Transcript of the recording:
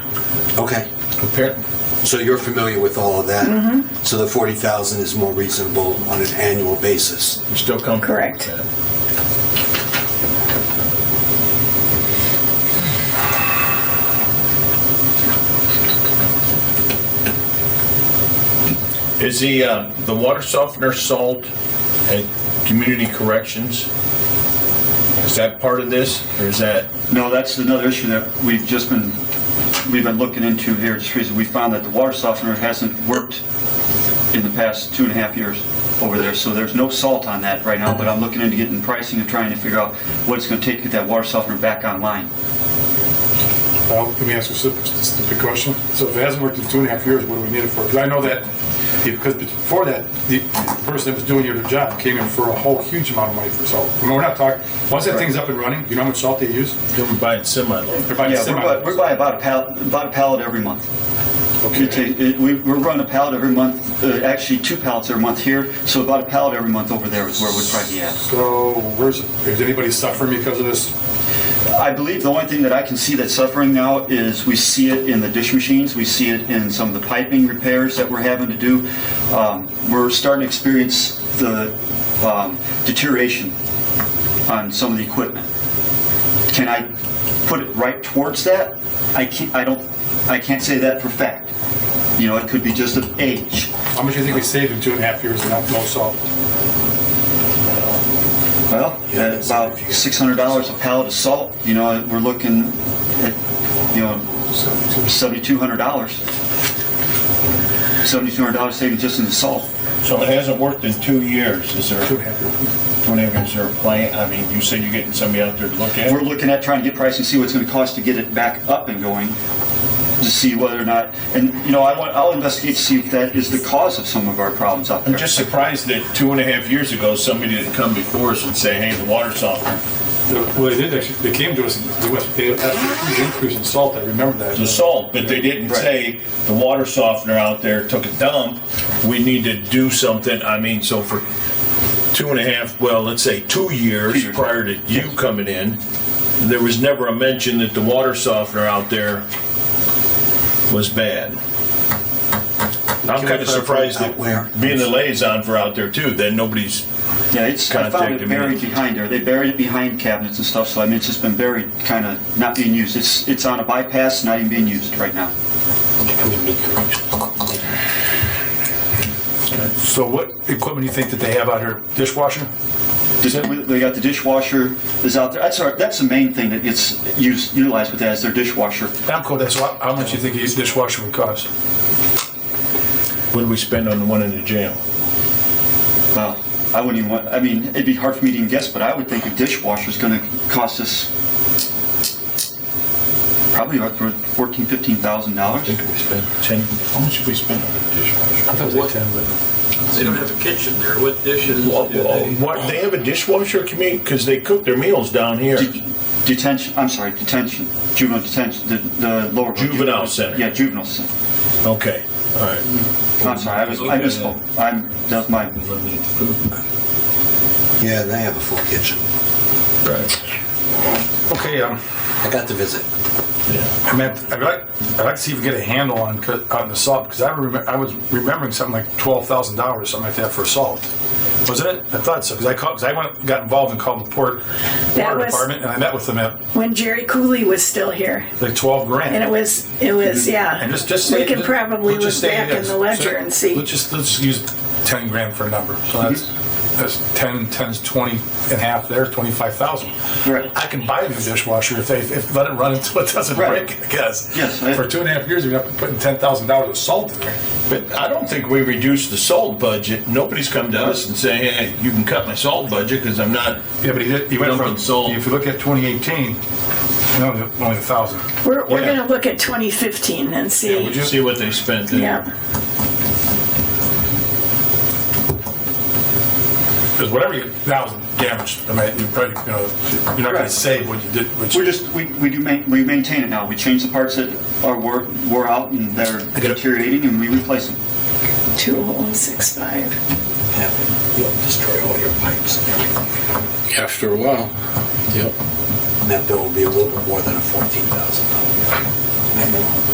Okay. Compare- So you're familiar with all of that? So the 40,000 is more reasonable on an annual basis? You're still comfortable with Correct. that? Is the, uh, the water softener salt at community corrections, is that part of this, or is that, No, that's another issue that we've just been, we've been looking into here at Streets. We found that the water softener hasn't worked in the past two and a half years over there, so there's no salt on that right now, but I'm looking into getting pricing and trying to figure out what it's gonna take to get that water softener back online. Well, let me ask you a stupid, stupid question. So if it hasn't worked in two and a half years, what do we need it for? Because I know that, because before that, the person that was doing your job came in for a whole huge amount of money for salt. I mean, we're not talking, once that thing's up and running, you know how much salt they use? you're buying semi-load? They're buying Yeah, we're semi. by- we're by about a pallet, about a pallet every month. Okay. It ta- it- we- We're running a pallet every month, uh, actually two pallets every month here, so about a pallet every month over there is where we'd probably be at. So where's, is anybody suffering because of this? I believe the only thing that I can see that's suffering now is we see it in the dish machines, we see it in some of the piping repairs that we're having to do. Um, We're starting to experience the um, deterioration on some of the equipment. Can I put it right towards that? I can't, I don't, I can't say that for fact. You know, it could be just of age. How much do you think we saved in two and a half years and no no salt? Well, at about $600 a pallet of salt, you know, we're looking at, you know, Seventy-two hundred dollars. Seventy-two hundred dollars savings just in the salt. So it hasn't worked in two years, is there, Two and a half years. don't have, is there a plan, I mean, you said you're getting somebody out there to look at We're it? looking at trying to get price and see what it's gonna cost to get it back up and going, to see whether or not, and, you know, I want, I'll investigate to see if that is the cause of some of our problems out I'm there. just surprised that two and a half years ago, somebody didn't come before us and say, hey, the water softener, Well, they did actually, they came to us, and we went- they asked for a huge increase in salt, I remember that. the salt, but they didn't Right. say the water softener out there took a dump. We need to do something. I mean, so for two and a half, well, let's say two years, Two years. prior to you coming in, there was never a mention that the water softener out there was bad. I'm Can kind we of clarify surprised out that where? being the liaison for out there too, then nobody's. Yeah, it's, I found Contacted it me. buried behind there. They buried it behind cabinets and stuff, so I mean, it's just been buried, kinda not being used. It's, it's on a bypass, not even being used right now. So what equipment do you think that they have out here? Dishwasher? They got the dishwasher is out there. That's our, that's the main thing that gets used, utilized with that is their dishwasher. Amco, that's how how much you think a dishwasher would cost? What do we spend on the one in the jail? Wow. I wouldn't even want, I mean, it'd be hard for me to even guess, but I would think a dishwasher's gonna cost us probably about for fourteen, fifteen thousand dollars. I think we spent ten. How much did we spend on the dishwasher? They don't have a kitchen there. What dishes Well, do well, they? What, they have a dishwasher community, because they cook their meals down here. Detention, I'm sorry, detention, juvenile detention, the, the lower. Juvenile center. Yeah, juvenile center. Okay, all right. I'm sorry, I was, I misspoke. I'm, that's my, Eliminate food. Yeah, they have a full kitchen. Right. Okay, um, I got to visit. I mean, I'd like, I'd like to see if we get a handle on, co- on the salt, because I remember, I was remembering something like twelve thousand dollars, something like that for salt. Wasn't it? I thought so, because I called, because I went, got involved and called the port, That water was- department, and I met with them at When Jerry Cooley was still here, like twelve grand. and it was, it was, yeah. And just, just We say- can probably let's look just say back it in is. the ledger So, and see. Let's just, let's just use ten grand for a number, so that's, Mm-hmm. that's ten, ten's twenty and a half there, twenty-five thousand. Right. I can buy a new dishwasher if they, if, let it run until it doesn't Right. break, I guess. Yes, I- For two and a half years, we've been putting ten thousand dollars of salt in there. But I don't think we reduced the salt budget. Nobody's come to us and say, hey, you can cut my salt budget because I'm not. Yeah, but he did, he went Dumping from, salt. if you look at 2018, only, only a thousand. We're, we're Yeah. gonna look at 2015 and Would see, you see what they spent there? yeah. Because whatever you, that was damaged. I mean, you probably, you know, you're not gonna Right. save what you did, what we're you, just, we, we do ma- we maintain it now. We change the parts that are wore, wore out and that are deteriorating and we replace them. 2065. Yeah. You'll destroy all your pipes and everything. After a while. Yep. And that bill will be a little bit more than a $14,000. bill.